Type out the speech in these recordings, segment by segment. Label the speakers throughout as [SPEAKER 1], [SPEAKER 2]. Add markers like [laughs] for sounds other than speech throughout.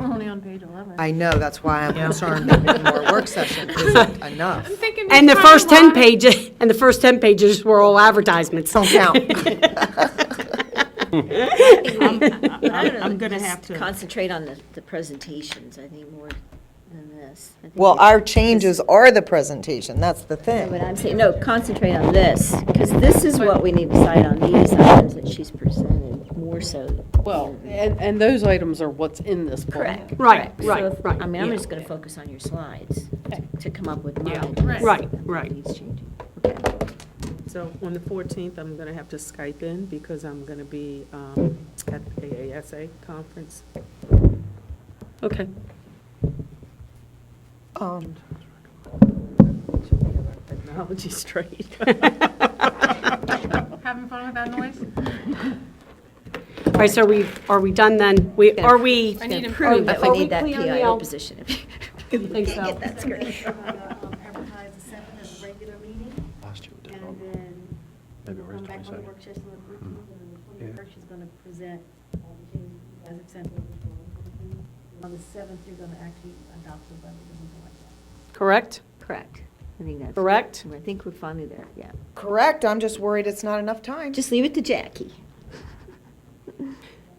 [SPEAKER 1] only on page 11.
[SPEAKER 2] I know, that's why I'm
[SPEAKER 3] Yeah.
[SPEAKER 2] concerned that one more work session isn't enough.
[SPEAKER 4] And the first 10 pages, [laughs] and the first 10 pages were all advertisements.
[SPEAKER 2] Don't count.
[SPEAKER 4] [laughs]
[SPEAKER 5] [laughs] I'm
[SPEAKER 3] I'm gonna have to-
[SPEAKER 5] Concentrate on the, the presentations, I think, more than this. I think
[SPEAKER 6] Well,
[SPEAKER 5] we-
[SPEAKER 6] our changes are the presentation, that's the
[SPEAKER 5] What
[SPEAKER 6] thing.
[SPEAKER 5] I'm saying, no, concentrate on this, because this is what we need to decide on, these items that she's presented, more so.
[SPEAKER 7] Well, and, and those items are what's in this book.
[SPEAKER 5] Correct.
[SPEAKER 4] Right,
[SPEAKER 5] So
[SPEAKER 4] right,
[SPEAKER 5] if-
[SPEAKER 4] right,
[SPEAKER 5] I mean, I'm
[SPEAKER 4] yeah.
[SPEAKER 5] just gonna focus on your slides to come up with
[SPEAKER 7] Yeah,
[SPEAKER 5] mine.
[SPEAKER 4] right, right.
[SPEAKER 5] Needs changing.
[SPEAKER 3] So on the 14th, I'm going to have to Skype in because I'm going to be um, at the AASA conference.
[SPEAKER 4] Okay.
[SPEAKER 6] Um,
[SPEAKER 3] Technology straight. [laughs]
[SPEAKER 1] Having fun with that noise?
[SPEAKER 4] All right, so we, are we done then? We, [laughs] are we?
[SPEAKER 1] I need
[SPEAKER 5] Prove
[SPEAKER 1] improvement.
[SPEAKER 5] that we
[SPEAKER 4] Are we
[SPEAKER 5] need that
[SPEAKER 4] clear on the
[SPEAKER 5] PIO
[SPEAKER 4] al-
[SPEAKER 5] position.
[SPEAKER 4] think so.
[SPEAKER 5] That's
[SPEAKER 4] [laughs]
[SPEAKER 5] great.
[SPEAKER 8] Advertise the seventh as a regular meeting,
[SPEAKER 9] Last year we did,
[SPEAKER 8] and
[SPEAKER 9] um,
[SPEAKER 8] then
[SPEAKER 9] maybe it
[SPEAKER 8] come
[SPEAKER 9] was
[SPEAKER 8] back on the
[SPEAKER 9] 22nd.
[SPEAKER 8] work session on the fourteenth, and then the
[SPEAKER 9] Yeah.
[SPEAKER 8] twenty-first, she's gonna present all the changes you guys have sent over. And On the seventh, you're gonna actually adopt the budget or something like that.
[SPEAKER 4] Correct?
[SPEAKER 5] Correct. I think that's.
[SPEAKER 4] Correct?
[SPEAKER 5] I think we're finally there, yeah.
[SPEAKER 6] Correct, I'm just worried it's not enough time.
[SPEAKER 5] Just leave it to Jackie.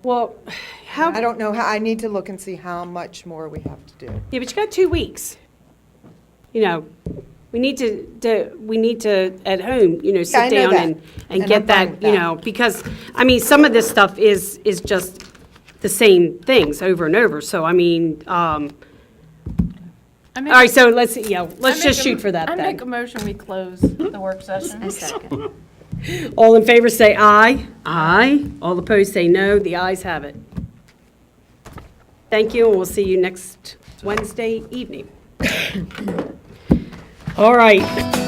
[SPEAKER 4] Well, [sighs] how,
[SPEAKER 6] I
[SPEAKER 4] yeah,
[SPEAKER 6] don't know, how. I need to look and see how much more we have to do.
[SPEAKER 4] but you got two weeks. You know, we need to, to- we need to, at home, you know,
[SPEAKER 6] Yeah, I
[SPEAKER 4] sit
[SPEAKER 6] know
[SPEAKER 4] down
[SPEAKER 6] that,
[SPEAKER 4] and,
[SPEAKER 6] and
[SPEAKER 4] and
[SPEAKER 6] I'm
[SPEAKER 4] get
[SPEAKER 6] fine with
[SPEAKER 4] that, you
[SPEAKER 6] that.
[SPEAKER 4] know, because, I mean, some of this stuff is, is just the same things over and over. So, I mean, um,
[SPEAKER 1] I
[SPEAKER 4] all
[SPEAKER 1] make-
[SPEAKER 4] right, so let's, yeah,
[SPEAKER 1] I
[SPEAKER 4] let's
[SPEAKER 1] make
[SPEAKER 4] just
[SPEAKER 1] a-
[SPEAKER 4] shoot for that
[SPEAKER 1] I make a
[SPEAKER 4] then.
[SPEAKER 1] motion, we close the work session.
[SPEAKER 5] A second.
[SPEAKER 4] All in favor, say aye. Aye. All opposed, say no. The ayes have it. Thank you, and we'll see you next Wednesday evening. [coughs] All right.